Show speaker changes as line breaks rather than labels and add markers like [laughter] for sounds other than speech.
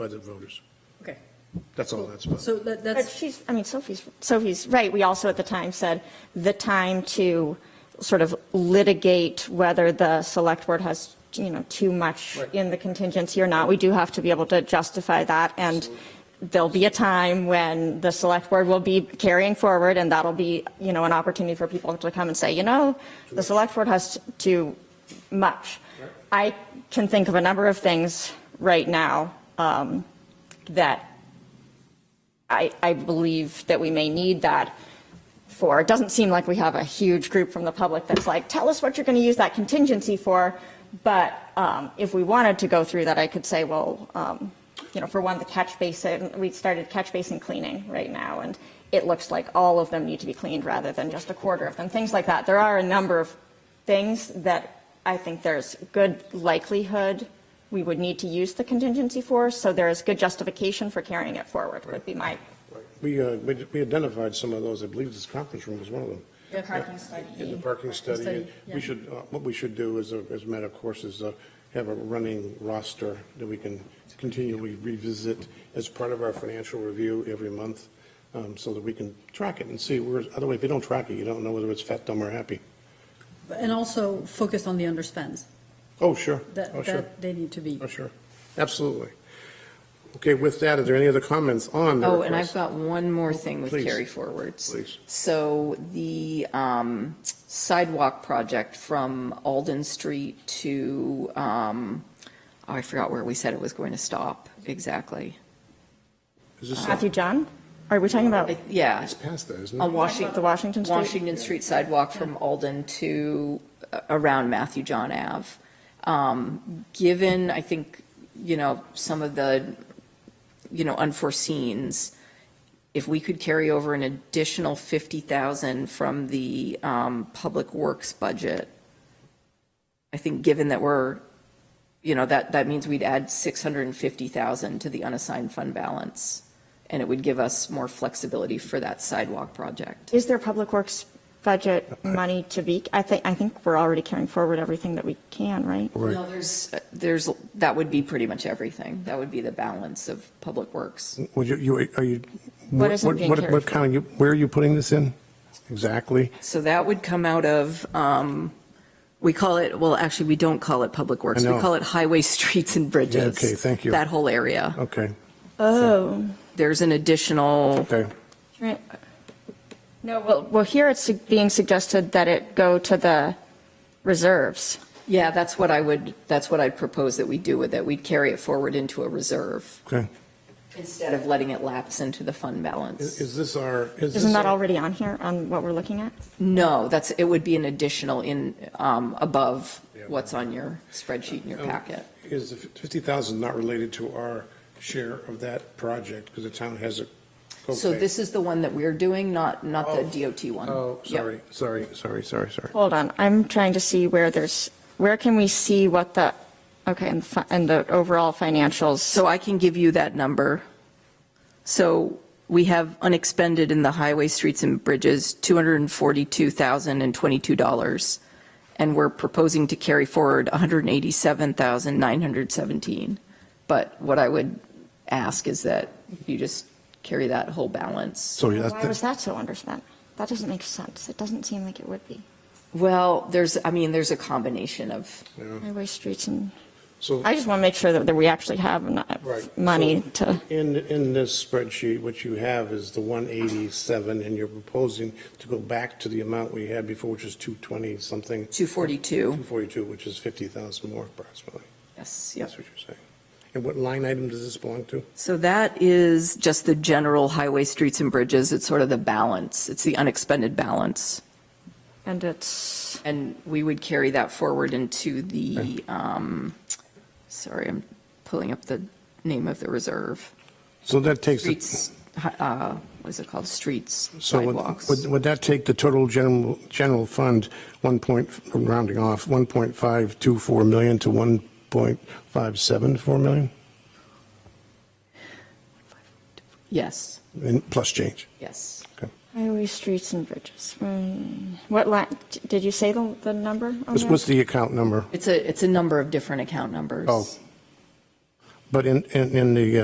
by the voters.
Okay.
That's all that's about.
So that,
But
that's,
she's, I mean, Sophie's, Sophie's right. We also at the time said the time to sort of litigate whether the select board has, you know, too much
Right.
in the contingency or not. We do have to be able to justify that. And there'll be a time when the select board will be carrying forward and that'll be, you know, an opportunity for people to come and say, you know, the select board has too much. I can think of a number of things right now um, that I, I believe that we may need that for. It doesn't seem like we have a huge group from the public that's like, tell us what you're going to use that contingency for. But um, if we wanted to go through that, I could say, well, um, you know, for one, the catch basin, we started catch basin cleaning right now, and it looks like all of them need to be cleaned rather than just a quarter of them, things like that. There are a number of things that I think there's good likelihood we would need to use the contingency for, so there is good justification for carrying it forward, would be my
We, uh, we we identified some of those, I believe this conference room was one of them.
Yeah.
parking study.
In the parking study, and
yeah.
we should, uh, what we should do is, uh, as a matter of course, is uh, have a running roster that we can continually revisit as part of our financial review every month, um, so that we can track it and see where, otherwise, if you don't track it, you don't know whether it's fat, dumb, or happy.
and also focus on the underspends,
Oh, sure. Oh,
that,
sure.
that they need to be.
Oh, sure. Absolutely. Okay, with that, are there any other comments on the
Oh, and I've
request?
got one more thing with
Please.
carry forwards.
Please.
So the um, sidewalk project from Alden Street to, um, oh, I forgot where we said it was going to stop exactly.
Is this,
Matthew John, are we talking about
I- Yeah,
it's past that, isn't it?
on Washington,
the Washington Street?
Washington Street sidewalk from Alden to uh, around Matthew John Ave. Um, Given, I think, you know, some of the, you know, unforeseens, if we could carry over an additional 50,000 from the um, Public Works budget, I think given that we're, you know, that, that means we'd add 650,000 to the unassigned fund balance, and it would give us more flexibility for that sidewalk project.
Is there public works budget money to be, I think, I think we're already carrying forward everything that we can, right?
No, there's, there's, that would be pretty much everything. That would be the balance of Public Works.
Would you, you, are you?
What isn't being
what-
carried
What kind, of- where are you putting this in? Exactly.
So that would come out of, um, we call it, well, actually, we don't call it Public Works.
I
We
know.
call it Highway, [laughs] Streets, and Bridges.
okay, thank you.
That whole area.
Okay,
Oh.
There's an additional,
okay.
Right. No, well, well, here it's su- being suggested that it go to the reserves.
yeah, that's what I would, that's what I'd propose that we do with it. We'd carry it forward into a reserve
Okay.
instead of letting it lapse into the fund
Is
balance.
is this our? is
Isn't
this
that
our-
already on here, on what we're looking at?
No, that's, it would be an additional in, um, above
Yeah.
what's on your spreadsheet in your
Um,
packet.
Is the 50,000 not related to our share of that project, because the town has a copay?
So this is the one that we're doing, not, not the
Oh.
DOT one?
Oh,
Yep.
sorry, sorry, sorry, sorry, sorry.
Hold on, I'm trying to see where there's, where can we see what the, okay, and, fi- and the overall financials.
So I can give you that number. So we have unexpended in the highway, streets, and bridges, $242,022. And we're proposing to carry forward 187,917. But what I would ask is that you just carry that whole balance.
So
Why was
that's,
that so underspent? That doesn't make sense. It doesn't seem like it would be.
Well, there's, I mean, there's a combination of,
Highway, streets, and,
so.
I just want to make sure that that we actually have enough
Right.
money
So
to,
In, in this spreadsheet, what you have is the 187, and you're proposing to go back to the amount we had before, which is 220 something,
242.
242, which is 50,000 more approximately.
Yes, yep.
That's what you're saying. And what line item does this belong to?
So that is just the general highway, streets, and bridges. It's sort of the balance. It's the unexpended balance.
and it's,
And we would carry that forward into the, um, sorry, I'm pulling up the name of the reserve.
So that takes, the-
Streets, hi- uh, what is it called? Streets,
so would-
sidewalks.
would, would that take the total general, general fund, one point, rounding off, 1.524 million to 1.574 million,
Yes,
and plus change?
yes.
Okay.
highway, streets, and bridges. Hmm. What line, did you say the, the number? on
What's-
that?
What's the account number?
It's a, it's a number of different account numbers.
Oh. But in, in, in the uh,